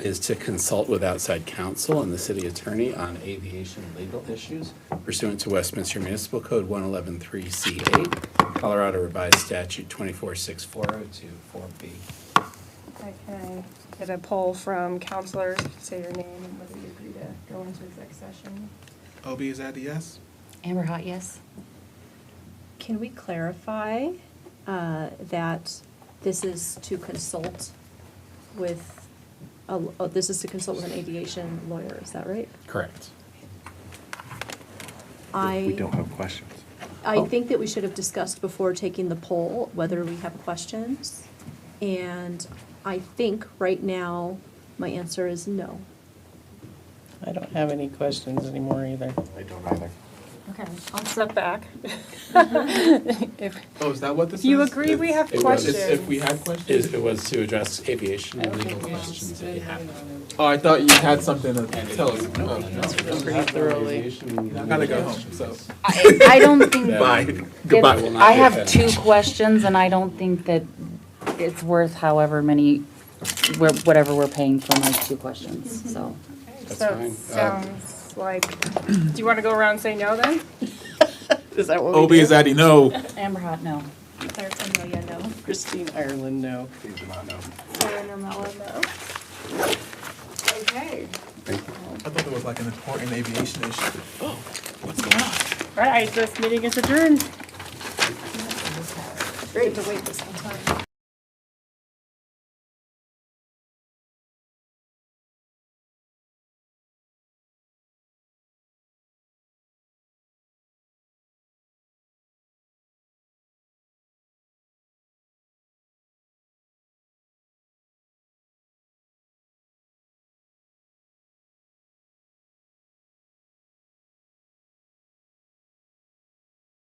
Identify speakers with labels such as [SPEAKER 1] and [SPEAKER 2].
[SPEAKER 1] is to consult with outside counsel and the city attorney on aviation legal issues pursuant to Westminster Municipal Code 1113C8, Colorado Revised Statute 2464024B.
[SPEAKER 2] Okay, get a poll from counselors, say your name and whether you agree to go into exec session.
[SPEAKER 3] OB, is that a yes?
[SPEAKER 4] Amber Hot, yes?
[SPEAKER 5] Can we clarify uh, that this is to consult with, a- oh, this is to consult with an aviation lawyer, is that right?
[SPEAKER 1] Correct.
[SPEAKER 5] I,
[SPEAKER 6] have questions. Oh.
[SPEAKER 5] I think that we should have discussed before taking the poll whether we have questions. And I think right now, my answer is no.
[SPEAKER 7] I don't have any questions anymore either.
[SPEAKER 6] I don't either.
[SPEAKER 2] Okay, I'll step back. If
[SPEAKER 3] Oh, is that what this is?
[SPEAKER 2] you agree, we have
[SPEAKER 1] It was-
[SPEAKER 2] questions.
[SPEAKER 3] It's If we had
[SPEAKER 1] Is-
[SPEAKER 3] questions?
[SPEAKER 1] It was to address aviation legal questions that you have.
[SPEAKER 3] Oh, I thought you had something to
[SPEAKER 1] And if
[SPEAKER 3] tell us.
[SPEAKER 1] you don't
[SPEAKER 3] Oh,
[SPEAKER 1] answer those
[SPEAKER 7] Pretty thoroughly.
[SPEAKER 1] aviation
[SPEAKER 3] I gotta go
[SPEAKER 1] legal
[SPEAKER 3] home,
[SPEAKER 1] issues,
[SPEAKER 3] so.
[SPEAKER 4] I, I don't think.
[SPEAKER 1] then Goodbye. will
[SPEAKER 4] that-
[SPEAKER 1] not
[SPEAKER 4] I
[SPEAKER 1] be
[SPEAKER 4] have
[SPEAKER 1] had.
[SPEAKER 4] two questions, and I don't think that it's worth however many, we're- whatever we're paying for my two questions, so.
[SPEAKER 1] That's
[SPEAKER 2] So
[SPEAKER 1] fine.
[SPEAKER 3] Um,
[SPEAKER 2] it sounds like, do you want to go around and say no then?
[SPEAKER 7] Is that what we
[SPEAKER 3] OB,
[SPEAKER 7] do?
[SPEAKER 3] is that a no?
[SPEAKER 4] Amber Hot, no.
[SPEAKER 7] Christine Ireland, no.
[SPEAKER 1] Please do not know.
[SPEAKER 2] Sarah Mello, no? Okay,
[SPEAKER 3] I thought there was like an important aviation issue. Oh, what's going on?
[SPEAKER 2] all right, this meeting is adjourned.
[SPEAKER 5] We have to wait this long.